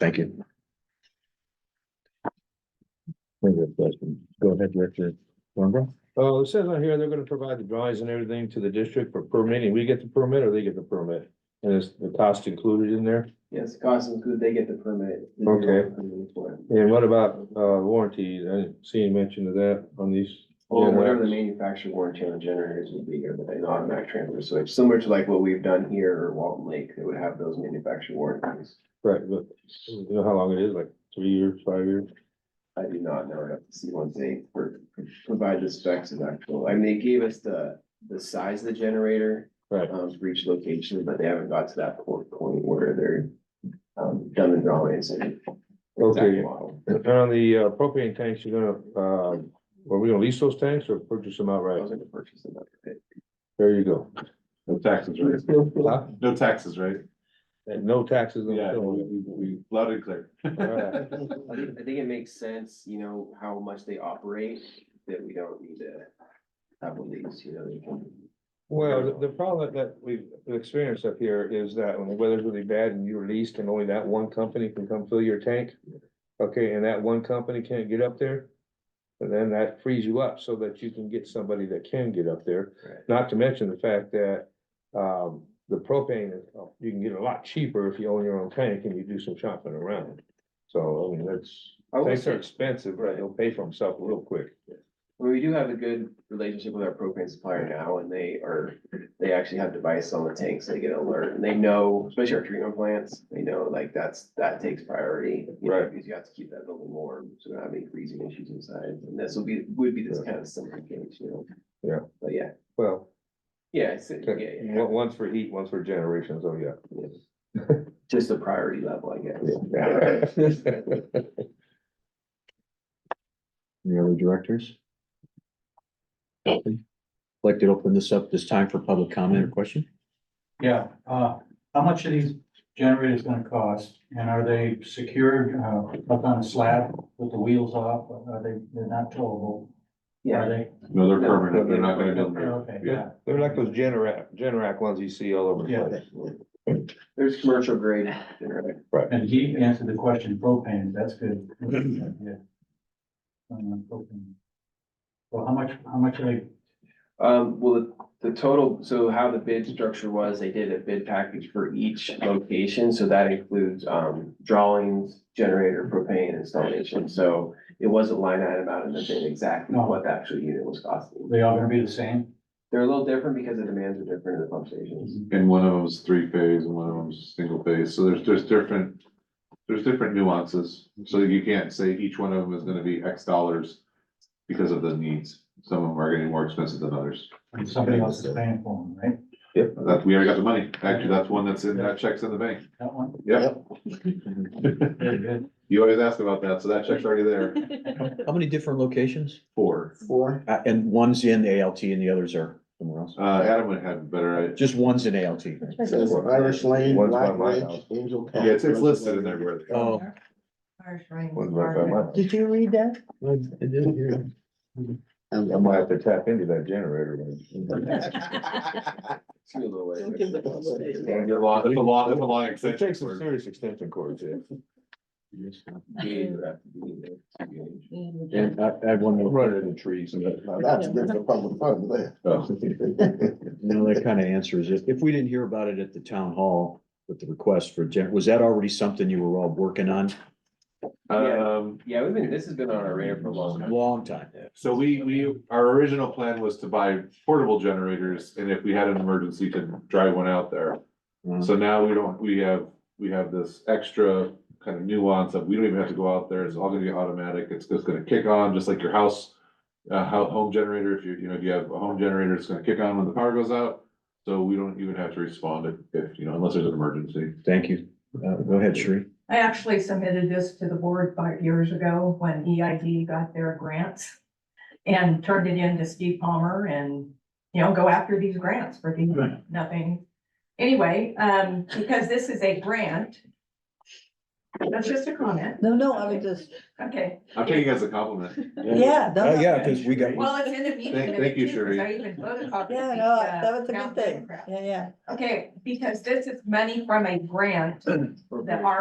Thank you. Further questions? Go ahead, Director Thornborough. Oh, it says on here, they're gonna provide the drawings and everything to the district for permitting. We get the permit or they get the permit? And is the cost included in there? Yes, cost is good, they get the permit. They do Okay. the permit for it. And what about, uh, warranties? I didn't see any mention of that on these. Well, Oh, whatever the generators. manufacturer warranty on the generators would be here, but an automatic transfer switch, similar to like what we've done here or Walton Lake, they would have those manufacturer warranties. Right, but you know how long it is, like three years, five years? I do not know, I have to see once they pro- provide the specs of actual, I mean, they gave us the, the size of the generator. Right. Um, for each location, but they haven't got to that point where they're, um, done the drawings and. exact Okay. model. And on the uh, propane tanks, you're gonna, um, were we gonna lease those tanks or purchase them I outright? was gonna purchase another pit. There you go. No taxes, right? Huh? No taxes, right? And no taxes. on the Yeah, we, bill. we, we loud and clear. Alright. I think, I think it makes sense, you know, how much they operate, that we don't need to have a lease, you know, they can. Well, the- the problem that we've experienced up here is that when the weather's really bad and you're leased and only that one company can come fill your tank. Okay, and that one company can't get up there. And then that frees you up so that you can get somebody that can get up there. Right. Not to mention the fact that um, the propane, is uh, you can get a lot cheaper if you own your own tank and you do some shopping around. So, I mean, that's, I will tanks are say, expensive, right? They'll pay for themselves real quick. well, we do have a good relationship with our propane supplier now, and they are, they actually have device on the tanks, they get an alert, and they know, especially our treatment plants, they know like that's, that takes priority. you know, Right. Because you have to keep that building warm, so we don't have any freezing issues inside, and this will be, would be this kind of similar case, you know? Yeah. But yeah, Well, yeah, it's, yeah, yeah, one- one's for heat, one's for generations, oh yeah. yeah. Just the priority level, I guess. Yeah. Any other directors? Like to open this up this time for public comment or question? Yeah, uh, how much are these generators gonna cost? And are they secured, uh, up on a slab with the wheels off? Are they, they're not towable? Are they? No, they're No, permanent, they're not gonna do them. Okay, yeah. They're like those Generac, Generac ones you see all over the Yeah. place. There's commercial grade, generator. And he answered the question propane, that's good. Yeah. Um, propane. Well, how much, how much are they, Um, well, the total, so how the bid structure was, they did a bid package for each location, so that includes, um, drawings, generator, propane installation, so it wasn't line item out in the bid exactly No. what the actual unit was costing. they all gonna be the same? They're a little different because the demands are different in the pump stations. And one of them's three phase and one of them's single phase, so there's, there's different, there's different nuances. So you can't say each one of them is gonna be X dollars because of the needs. Some of them are getting more expensive than others. And Somebody else is paying for them, right? That, we already got the money. Actually, that's one that's in, that check's in the bank. That one? Yep, Very good. you always ask about that, so that check's already there. How many different locations? Four. Four. Uh, and one's in ALT and the others are somewhere else. Uh, Adam would have better, Just one's in ALT. Says Irish Lane, One's by Black my Ridge, house. Angel. yeah, Path. it's, it's listed in there. where they- Oh. Irish Lane. One's right by my house. Did you read that? I might have to tap into that generator. man. It's gonna be a little way. It's a long, it's a long, it's a long It extension. takes some serious extension cords, yeah. Yeah, you have to be there. And I, I had one more. Run it in trees. Now, That's different public fund there. No, that kind of answers it. If we didn't hear about it at the town hall with the request for gen, was that already something you were all working on? Um, Yeah, we've been, this has been on our radar for a long time. Long time. so we, we, our original plan was to buy portable generators and if we had an emergency to drive one out there. Mhm. So now we don't, we have, we have this extra kind of nuance of we don't even have to go out there. It's all gonna be automatic. It's just gonna kick on, just like your house. Uh, how, home generator, if you, you know, if you have a home generator, it's gonna kick on when the power goes out. So we don't even have to respond if, if, you know, unless there's an emergency. Thank you. Uh, go ahead, Sheree. I actually submitted this to the board five years ago when EID got their grants and turned it in to Steve Palmer and, you know, go after these grants for these, nothing. Anyway, um, because this is a grant. That's just a comment. No, no, I was just, Okay, I'm taking it as a compliment. yeah, no, Uh, no. yeah, because we got, well, it's in the meeting. Thank- thank you, Sheree. I even photocopied. yeah, these, no, uh, that was a good town thing. photographs. Yeah, yeah. Okay, because this is money from a grant that our